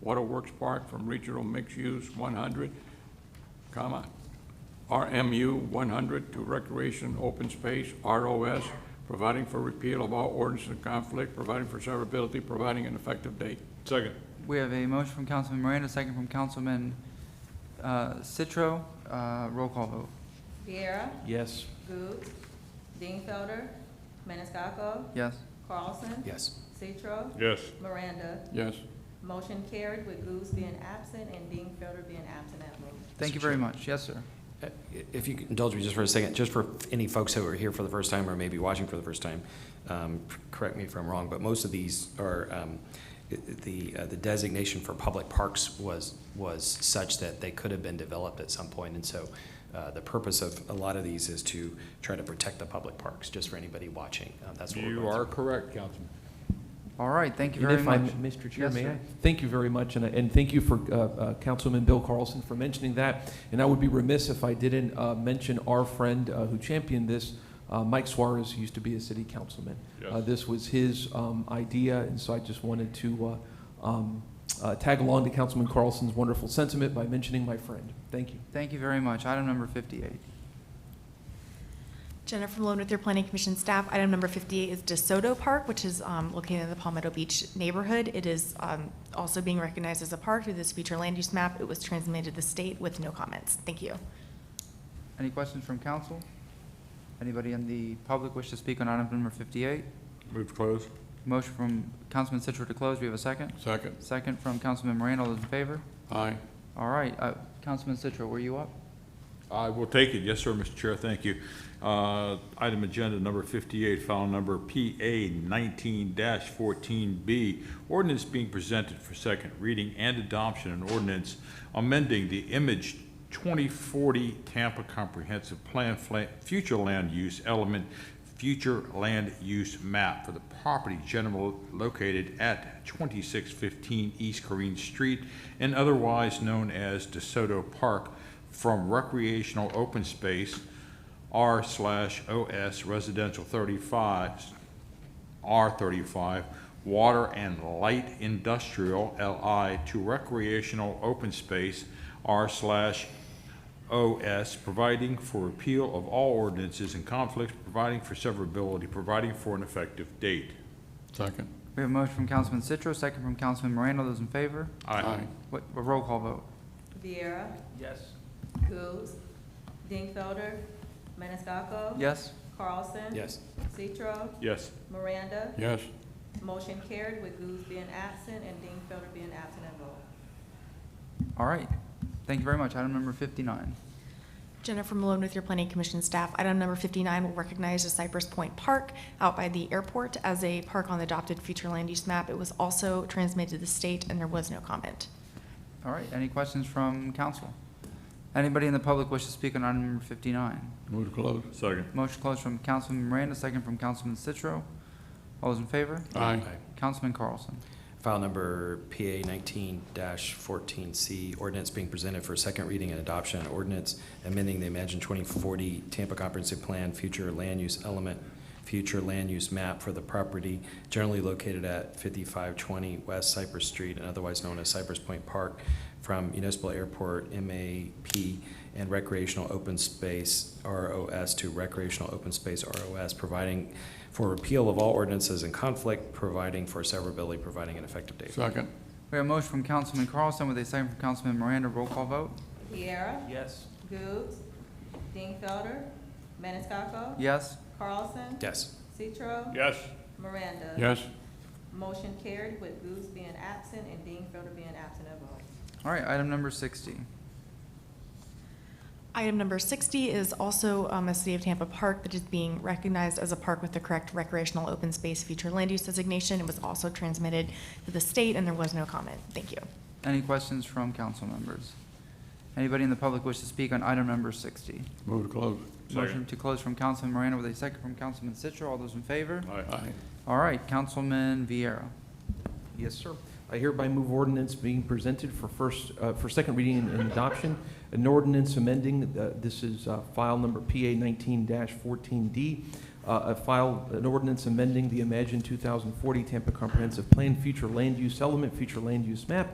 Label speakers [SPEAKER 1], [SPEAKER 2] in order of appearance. [SPEAKER 1] Waterworks Park from Regional Mixed Use 100, comma, RMU 100 to Recreation Open Space, ROS, providing for repeal of all ordinances in conflict, providing for severability, providing an effective date.
[SPEAKER 2] Second.
[SPEAKER 3] We have a motion from Councilman Miranda, second from Councilman uh, Citro. Uh, Roll call vote.
[SPEAKER 4] Viera,
[SPEAKER 5] Yes.
[SPEAKER 4] Goode, Dingfelder, Maniscalco,
[SPEAKER 3] Yes.
[SPEAKER 4] Carlson.
[SPEAKER 5] Yes.
[SPEAKER 4] Citro,
[SPEAKER 2] Yes.
[SPEAKER 4] Miranda.
[SPEAKER 1] Yes.
[SPEAKER 4] Motion carried with Goose being absent and Dingfelder being absent at vote.
[SPEAKER 3] Thank you very much. Yes, sir.
[SPEAKER 5] Uh, If you could indulge me just for a second, just for any folks who are here for the first time or maybe watching for the first time, um, correct me if I'm wrong, but most of these are, um, i- i- the, uh, the designation for public parks was, was such that they could have been developed at some point. And so uh, the purpose of a lot of these is to try to protect the public parks, just for anybody watching. Uh, That's what we're
[SPEAKER 2] You
[SPEAKER 5] going
[SPEAKER 2] are
[SPEAKER 5] through.
[SPEAKER 2] correct, Councilman.
[SPEAKER 3] All right, thank you
[SPEAKER 6] And
[SPEAKER 3] very
[SPEAKER 6] if I,
[SPEAKER 3] much.
[SPEAKER 6] Mr. Chair,
[SPEAKER 3] Yes,
[SPEAKER 6] may
[SPEAKER 3] sir.
[SPEAKER 6] I? Thank you very much, and, and thank you for, uh, uh, Councilman Bill Carlson for mentioning that. And I would be remiss if I didn't, uh, mention our friend, uh, who championed this, uh, Mike Suarez, who used to be a city councilman.
[SPEAKER 2] Yes.
[SPEAKER 6] Uh, this was his, um, idea, and so I just wanted to, uh, um, uh, tag along to Councilman Carlson's wonderful sentiment by mentioning my friend. Thank you.
[SPEAKER 3] Thank you very much. Item number fifty-eight.
[SPEAKER 7] Jennifer Malone with your Planning Commission staff. Item number 58 is DeSoto Park, which is um, located in the Palmetto Beach neighborhood. It is um, also being recognized as a park through this future land use map. It was transmitted to the state with no comments. Thank you.
[SPEAKER 3] Any questions from council? Anybody in the public wish to speak on item number fifty-eight?
[SPEAKER 2] Move to close.
[SPEAKER 3] Motion from Councilman Citro to close. We have a second.
[SPEAKER 1] Second.
[SPEAKER 3] Second from Councilman Miranda. All those in favor?
[SPEAKER 1] Aye.
[SPEAKER 3] All right, uh, Councilman Citro, were you up?
[SPEAKER 2] I will take it. Yes, sir, Mr. Chair, thank you. Uh, Item agenda number 58, file number PA 19-14B, ordinance being presented for second reading and adoption, an ordinance amending the image 2040 Tampa Comprehensive Plan, fla- future land use element, future land use map for the property general located at 2615 East Corrine Street and otherwise known as DeSoto Park from recreational open space R slash OS residential 35 R thirty-five, water and light industrial, LI, to recreational open space, R slash OS, providing for repeal of all ordinances in conflict, providing for severability, providing for an effective date.
[SPEAKER 1] Second.
[SPEAKER 3] We have a motion from Councilman Citro, second from Councilman Miranda. All those in favor? What, a roll call vote.
[SPEAKER 4] Viera,
[SPEAKER 6] Yes.
[SPEAKER 4] Goose, Dingfelder, Maniscalco.
[SPEAKER 3] Yes?
[SPEAKER 4] Carlson.
[SPEAKER 5] Yes.
[SPEAKER 4] Citro,
[SPEAKER 2] Yes.
[SPEAKER 4] Miranda.
[SPEAKER 1] Yes.
[SPEAKER 4] Motion carried with Goose being absent and Dingfelder being absent at vote.
[SPEAKER 3] All right. Thank you very much. Item number fifty-nine.
[SPEAKER 7] Jennifer Malone with your Planning Commission staff. Item number 59 will recognize the Cypress Point Park out by the airport as a park on the adopted future land use map. It was also transmitted to the state and there was no comment.
[SPEAKER 3] All right, any questions from council? Anybody in the public wish to speak on item number fifty-nine?
[SPEAKER 1] Move to close.
[SPEAKER 2] Second.
[SPEAKER 3] Motion closed from Councilman Miranda, second from Councilman Citro. All those in favor?
[SPEAKER 1] Aye.
[SPEAKER 5] Aye.
[SPEAKER 3] Councilman Carlson.
[SPEAKER 5] File number PA nineteen fourteen C, ordinance being presented for second reading and adoption, ordinance amending the Imagine twenty forty Tampa Comprehensive Plan, future land use element, future land use map for the property generally located at fifty-five twenty West Cypress Street and otherwise known as Cypress Point Park from Municipal Airport, MAP, and recreational open space, ROS, to recreational open space, ROS, providing for repeal of all ordinances in conflict, providing for severability, providing an effective date.
[SPEAKER 1] Second.
[SPEAKER 3] We have a motion from Councilman Carlson with a second from Councilman Miranda. Roll call vote.
[SPEAKER 4] Viera,
[SPEAKER 6] Yes.
[SPEAKER 4] Goode, Dingfelder, Maniscalco.
[SPEAKER 3] Yes?
[SPEAKER 4] Carlson.
[SPEAKER 5] Yes.
[SPEAKER 4] Citro.
[SPEAKER 2] Yes.
[SPEAKER 4] Miranda.
[SPEAKER 1] Yes.
[SPEAKER 4] Motion carried with Goose being absent and Dingfelder being absent at vote.
[SPEAKER 3] All right, item number sixty.
[SPEAKER 7] Item number 60 is also um, a City of Tampa park that is being recognized as a park with the correct recreational open space future land use designation. It was also transmitted to the state, and there was no comment. Thank you.
[SPEAKER 3] Any questions from council members? Anybody in the public wish to speak on item number sixty?
[SPEAKER 1] Move to close.
[SPEAKER 2] Second.
[SPEAKER 3] Motion to close from Councilman Miranda with a second from Councilman Citro. All those in favor?
[SPEAKER 1] Aye.
[SPEAKER 3] All right, Councilman Vieira.
[SPEAKER 6] Yes, sir. I hereby move ordinance being presented for first, uh, for second reading and- and adoption. An ordinance amending, uh, this is uh, file number PA nineteen fourteen D. uh, A file, an ordinance amending the Imagine two thousand forty Tampa Comprehensive Plan, future land use element, future land use map